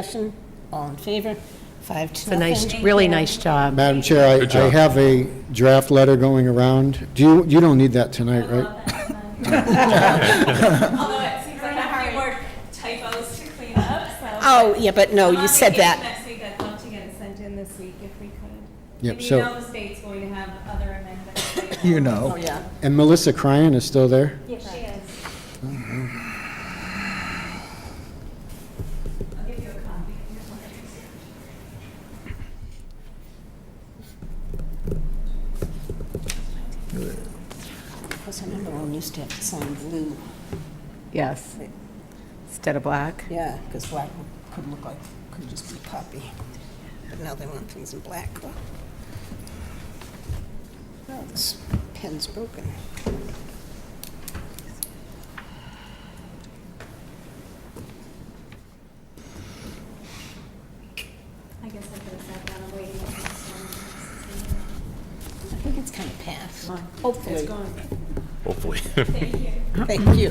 Discussion, all in favor, five It's to a nothing. nice, really nice job. Madam Chair, I- Good I job. have a draft letter going around. Do you, you don't need that tonight, Uh-huh. right? Although it seems like I have more typos to clean up, so. Oh, yeah, but no, you said I'm that. on vacation next week, I'd love to get it sent in this week if we could. Yep, And you so- know the state's going to have other amendments. You Oh. know. Oh, yeah. And Melissa Cryan is still there? Yes, she is. I'll give you a copy. Here's one. Because I remember when we used to have to sign blue. Yes. Instead of black. Yeah, because black would- could look like, could just be copy. But now they want things in black. Oh, this pen's broken. I guess I could have said that, I'm waiting. for this one. I think it's kind of past. Hopefully. Hopefully. Thank you. Thank you.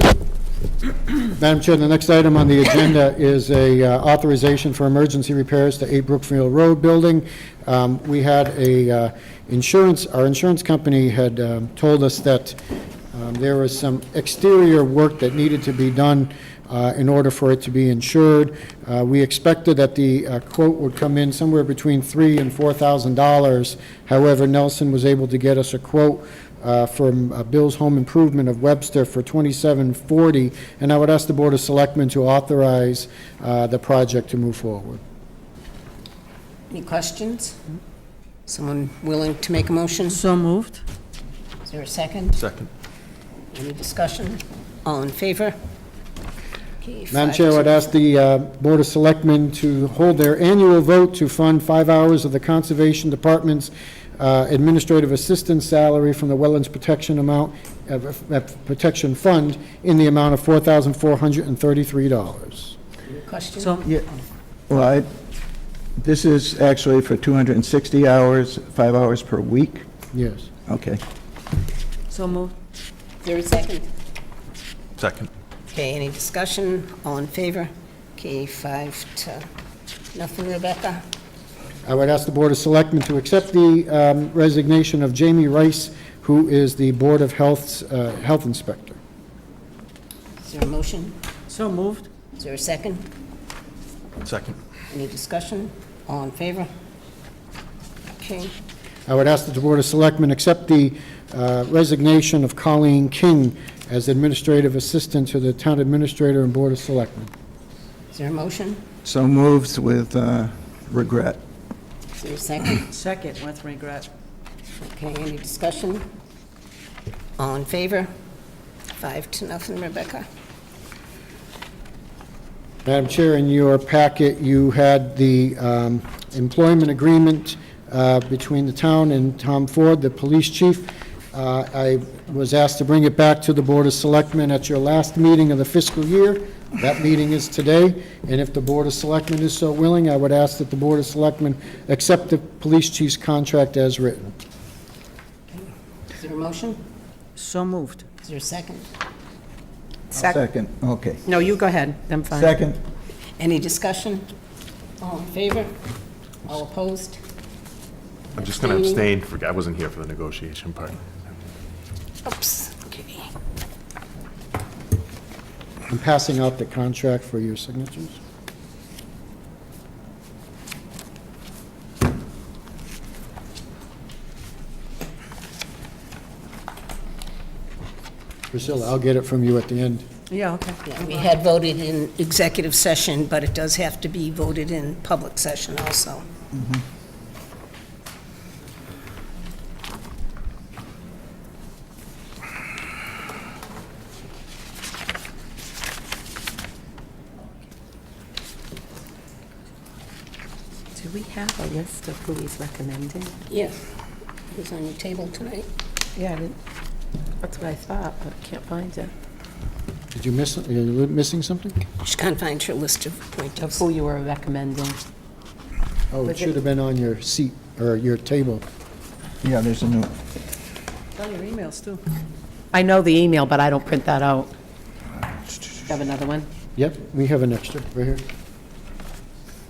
Madam Chair, the next item on the agenda is a uh, authorization for emergency repairs to 8 Brookfield Road building. Um, We had a uh, insurance, our insurance company had um, told us that um, there was some exterior work that needed to be done uh, in order for it to be insured. Uh, We expected that the uh, quote would come in somewhere between $3,000 and $4,000. However, Nelson was able to get us a quote uh, from uh, Bill's Home Improvement of Webster for twenty-seven forty, and I would ask the Board of Selectmen to authorize uh, the project to move forward. Any questions? Someone willing to make a motion? Is So moved. there a second? Second. Any discussion? All in favor? Okay, Madam five Chair, to- I'd ask the uh, Board of Selectmen to hold their annual vote to fund five hours of the Conservation Department's uh, administrative assistant salary from the Wetlands Protection amount, of- of Protection Fund in the amount of four thousand four hundred and thirty-three dollars. Question? So, Yeah, well, I, this is actually for 260 hours, five hours per week? Yes. Okay. so moved. Is there a second? Second. Okay, any discussion? All in favor? Okay, five to nothing, Rebecca. I would ask the Board of Selectmen to accept the um, resignation of Jamie Rice, who is the Board of Health's uh, Health Inspector. Is there a motion? So moved. Is there a second? Second. Any discussion? All in favor? Okay, I would ask that the Board of Selectmen accept the uh, resignation of Colleen King as Administrative Assistant to the Town Administrator and Board of Selectmen. is there a motion? So moves with uh, regret. Is there a second? Second with regret. Okay, any discussion? All in favor? Five to nothing, Rebecca. Madam Chair, in your packet, you had the um, employment agreement uh, between the town and Tom Ford, the police chief. Uh, I was asked to bring it back to the Board of Selectmen at your last meeting of the fiscal year. That meeting is today, and if the Board of Selectmen is so willing, I would ask that the Board of Selectmen accept the police chief's contract as written. Is there a motion? So moved. Is there a second? Second, okay. No, you go ahead. I'm fine. Second, Any discussion? All in favor? All opposed? I'm just going to abstain, for I wasn't here for the negotiation part. Oops, okay. I'm passing out the contract for your signatures. Priscilla, I'll get it from you at the end. Yeah, okay. Yeah, we had voted in executive session, but it does have to be voted in public session also. Do we have a list of who he's recommending? Yes. It was on your table tonight. Yeah, I didn't, that's what I thought, but I can't find it. Did you miss, are you missing something? She can't find your list of Of appointees. who you were recommending. Oh, it Was it- should have been on your seat, or your table. yeah, there's a new, On your emails, too. I know the email, but I don't print that out. You have another one? Yep, we have an extra, right here.